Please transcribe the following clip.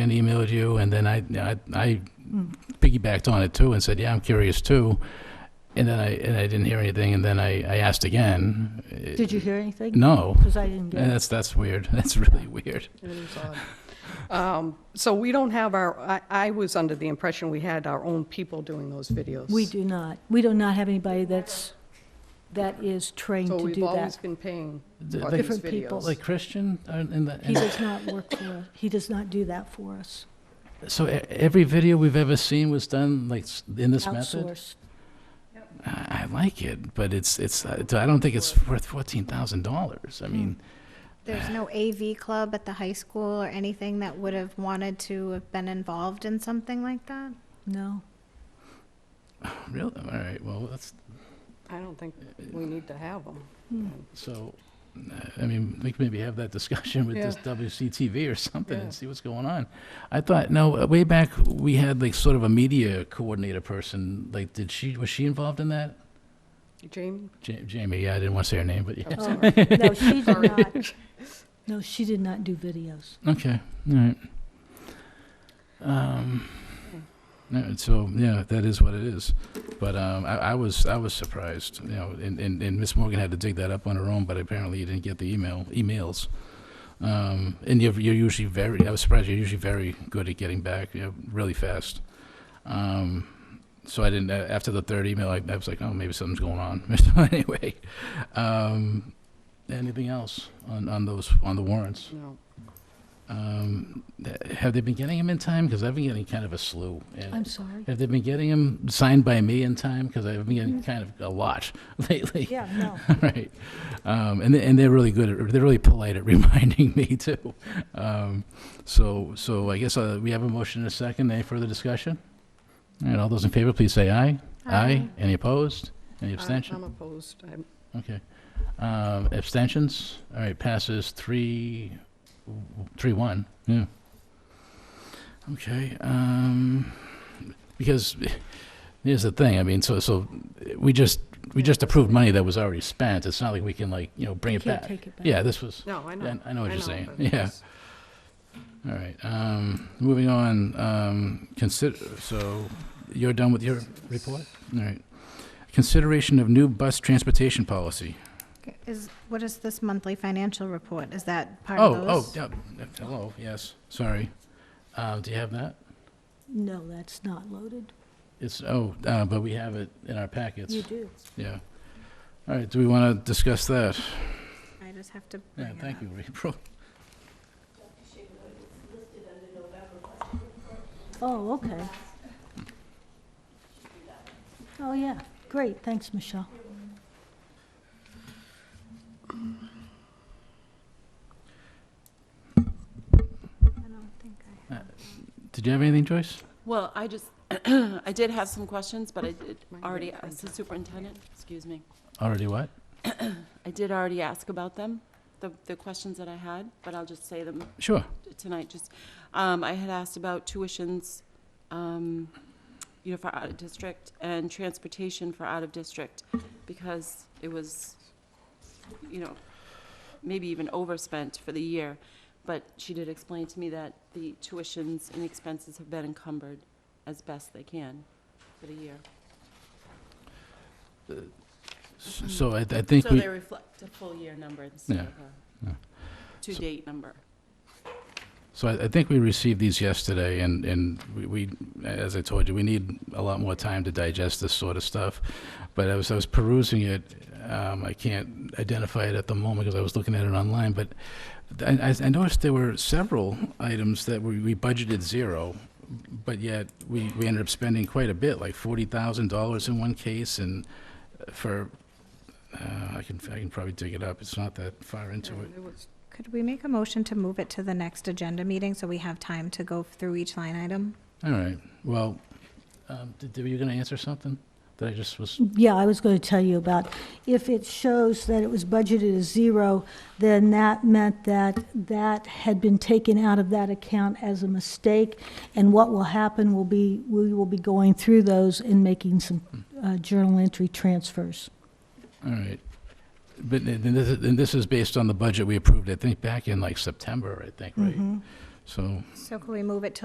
and emailed you, and then I, I, I piggybacked on it too and said, yeah, I'm curious too. And then I, and I didn't hear anything, and then I, I asked again. Did you hear anything? No. Uh, Because I didn't And get it. that's, that's weird. That's really weird. It is odd. Um, So we don't have our, I, I was under the impression we had our own people doing those videos. We do not. We do not have anybody that's, that is trained So to we've do always that. been paying The- for the- these Different people. videos. Like Christian, uh, in the, He in- does not work for us. He does not do that for us. so e- every video we've ever seen was done like s- in this method? Outsourced. I, I like it, but it's, it's, uh, I don't think it's worth fourteen thousand dollars. Hmm. I mean, There's no AV club at the high school or anything that would have wanted to have been involved in something like that? No. really, all right, well, that's, I don't think we need to have them. Hmm. So, uh, I mean, we could maybe have that discussion with this Yeah. WCTV or something Yeah. and see what's going on. I thought, no, uh, way back, we had like sort of a media coordinator person, like, did she, was she involved in that? Jamie? Ja- Jamie, yeah, I didn't want to say her name, but yeah. I'm Oh, sorry. No, she did Sorry. not. No, she did not do videos. Okay, all right. Um, all right, so, yeah, that is what it is. But, um, I, I was, I was surprised, you know, and, and, and Ms. Morgan had to dig that up on her own, but apparently you didn't get the email, emails. Um, and you're, you're usually very, I was surprised, you're usually very good at getting back, you know, really fast. Um, so I didn't, a- after the third email, I, I was like, oh, maybe something's going on. So anyway, um, anything else on, on those, on the warrants? No. Um, th- have they been getting them in time? Because I've been getting kind of a slew. And I'm sorry. have they been getting them signed by me in time? Because I've been getting kind of a lot lately. Mm-hmm. Yeah, no. All right. Um, and, they, and they're really good. At, they're really polite at reminding me too. Um, so so I guess uh, we have a motion and a second. Any further discussion? All right. All those in favor, please say aye. Aye. Any opposed? Any I'm- abstention? I'm opposed. I'm- Okay. Um, abstentions? All right, passes three, three, one, yeah. Okay, um, because here's the thing, I mean, so, so we just, we just approved money that was already spent. It's not like we can like, you know, bring You it can't back. take it back. Yeah, this was, No, I know. yeah, I know what I you're know, saying, but yeah. it's- All right, um, moving on, um, consider, so you're done with your report? All right. Consideration of new bus transportation policy. Is, what is this monthly financial report? Is that part Oh, of oh, those? yeah, yeah, hello, yes, sorry. Uh, do you have that? No, that's not loaded. It's, oh, uh, but we have it in our packets, You do. yeah. All right, do we want to discuss that? I just have to bring Yeah, it up. thank you, April. Oh, okay. Oh, yeah. Great. Thanks, Michelle. I don't think I have. Did you have anything, Joyce? Well, I just, I did have some questions, but I did Mine already didn't ask the superintendent, excuse me. Already what? I did already ask about them, the, the questions that I had, but I'll just say them Sure, tonight, just, um, I had asked about tuitions, um, you know, for out of district and transportation for out of district, because it was, you know, maybe even overspent for the year. But she did explain to me that the tuitions and expenses have been encumbered as best they can for the year. S- so I, I think So we, they reflect a full year number instead Yeah, of yeah. a to-date number. so I, I think we received these yesterday, and, and we- we, as I told you, we need a lot more time to digest this sort of stuff. But I was, I was perusing it, um, I can't identify it at the moment because I was looking at it online, but I, I- I noticed there were several items that we, we budgeted zero, but yet we, we ended up spending quite a bit, like forty thousand dollars in one case and for, uh, I can, I can probably dig it up, it's not that far into yeah, it. it was- Could we make a motion to move it to the next agenda meeting so we have time to go through each line item? All right, well, um, did, were you gonna answer something that I just was, Yeah, I was going to tell you about, if it shows that it was budgeted as zero, then that meant that that had been taken out of that account as a mistake. And what will happen will be, we will be going through those and making some uh, journal entry transfers. all right. Mm-hmm. But, th- th- this is- and this is based on the budget we approved, I think, back in like September, I think, right? So So can we move it to